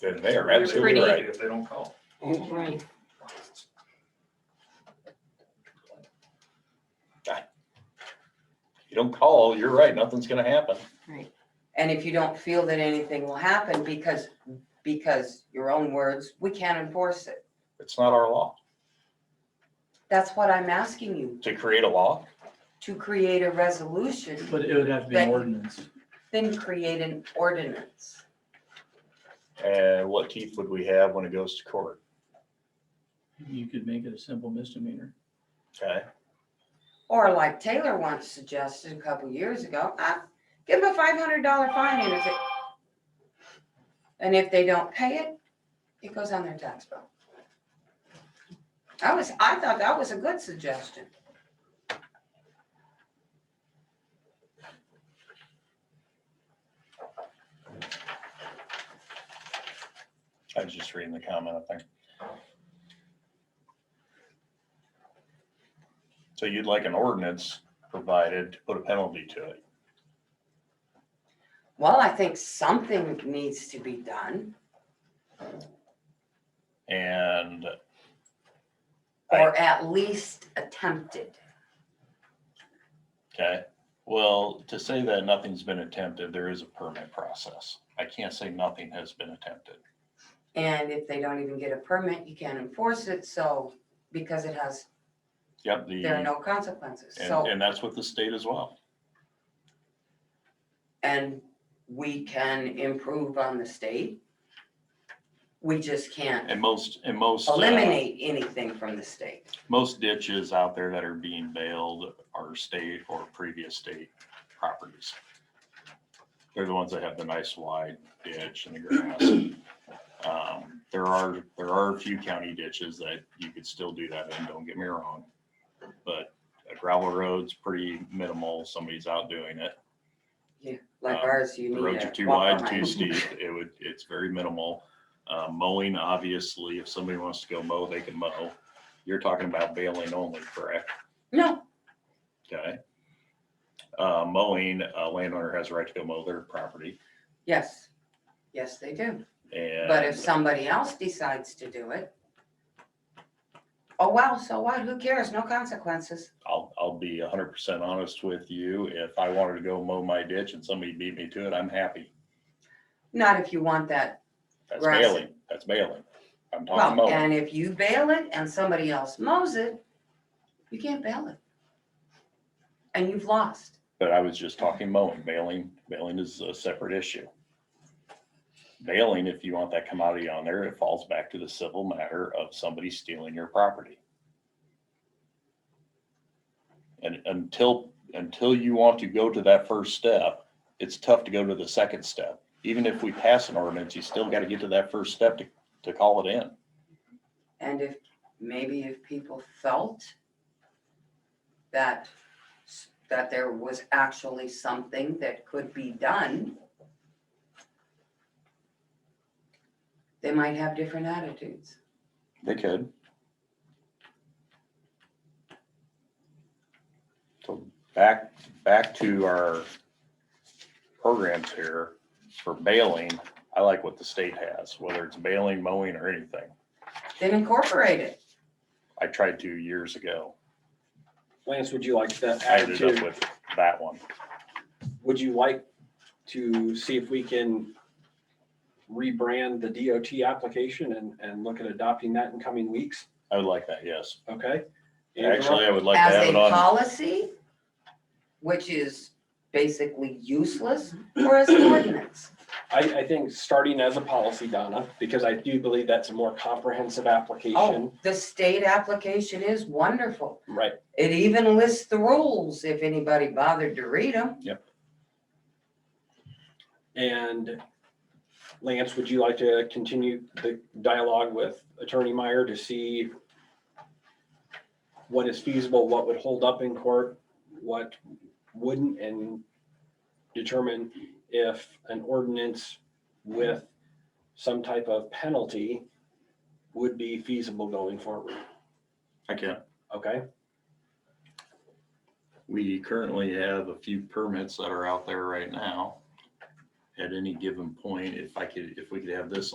then they're absolutely Pretty. right. If they don't call. Right. If You don't call, you're right, nothing's gonna happen. And if you don't feel that anything will happen because, because your own words, we can't enforce it. It's not our law. That's what I'm asking you, To create a law, to create a resolution, But it would have to be an Thank you. ordinance. then create an ordinance. and uh, what teeth would we have when it goes to court? You could make it a simple misdemeanor. Okay, Or like Taylor once suggested a couple years ago, uh, give them a five hundred dollar fine and if it, and if they don't pay it, it goes on their tax bill. I was, I thought that was a good suggestion. I was just reading the comment, I think. So you'd like an ordinance provided to put a penalty to it. Well, I think something needs to be done And or at least attempted. Okay, well, to say that nothing's been attempted, there is a permit process. I can't say nothing has been attempted. And if they don't even get a permit, you can't enforce it, so, because it has, Yep, there are the, no consequences, so. Mm. and, and that's with the state as well. and we can improve on the state. We just can't And most, and most. uh, eliminate anything from the state. Most ditches out there that are being bailed are state or previous state properties. They're the ones that have the nice wide ditch and the grass. Um, There are, there are a few county ditches that you could still do that in, don't get me wrong. But a gravel road's pretty minimal, somebody's out doing it. Like Um, ours, you The roads are need to too walk wide, too behind. steep, it would, it's very minimal. Uh, Mowing, obviously, if somebody wants to go mow, they can mow. You're talking about baling only, correct? No, Okay. Uh, mowing, a landowner has a right to go mow their property yes, yes, they do. and. uh, But if somebody else decides to do it, oh, well, so what? Who cares? No consequences. I'll, I'll be hundred percent honest with you. If I wanted to go mow my ditch and somebody beat me to it, I'm happy. Not if you want that. That's Right. bailing. That's bailing. I'm talking Well, mowing. and if you bail it and somebody else mows it, you can't bail it. And you've lost. But I was just talking mowing. Bailing, bailing is a separate issue. Bailing, if you want that commodity on there, it falls back to the civil matter of somebody stealing your property. And until, until you want to go to that first step, it's tough to go to the second step. Even if we pass an ordinance, you still got to get to that first step to, to call it in. And if, maybe if people felt that, s- that there was actually something that could be done, they might have different attitudes. They could. So back, back to our programs here for bailing, I like what the state has, whether it's bailing, mowing or anything. Then incorporate it. I tried to years ago. Lance, would you like that I added ended up to, with that one. would you like to see if we can rebrand the DOT application and, and look at adopting that in coming weeks? I would like that, yes. Okay? Angela? Actually, I would like to have As a it on, policy, which is basically useless, or as an ordinance. I, I think starting as a policy, Donna, because I do believe that's a more comprehensive application, Oh, the state application is wonderful. right? It even lists the rules if anybody bothered to read them. And Lance, would you like to continue the dialogue with Attorney Meyer to see what is feasible, what would hold up in court, what wouldn't, and determine if an ordinance with some type of penalty would be feasible going forward, I can, okay? we currently have a few permits that are out there right now. At any given point, if I could, if we could have this